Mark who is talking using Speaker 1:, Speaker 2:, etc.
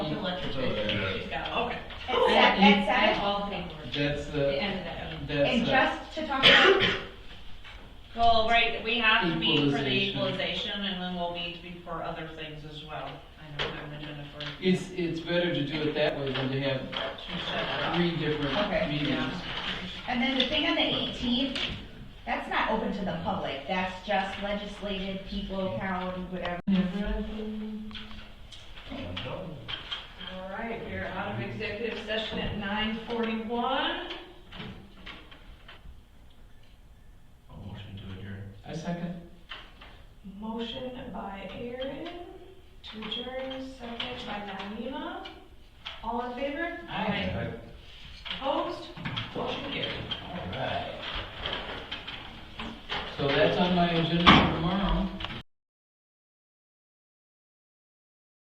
Speaker 1: Ed said it,
Speaker 2: all the paperwork.
Speaker 3: That's
Speaker 2: It
Speaker 3: the,
Speaker 2: ended up being.
Speaker 1: and
Speaker 3: uh, that's uh, a,
Speaker 1: just to talk about,
Speaker 2: Well, right, we have to meet for the
Speaker 3: Equalization.
Speaker 2: equalization and then we'll meet be- for other things as well. I don't have an agenda for.
Speaker 3: it's, it's better to do it that way than to have
Speaker 2: She said,
Speaker 3: three different
Speaker 1: Okay.
Speaker 3: meetings.
Speaker 2: Yeah.
Speaker 1: and then the thing on the eighteenth, that's not open to the public, that's just legislative, people, town, whatever.
Speaker 2: All right, we're out of executive session at nine forty-one.
Speaker 4: Motion to adjourn.
Speaker 3: I second.
Speaker 2: Motion by Aaron to adjourn, second by Naima. All in favor? Opposed? Motion carried.
Speaker 4: All right.
Speaker 3: So that's on my agenda.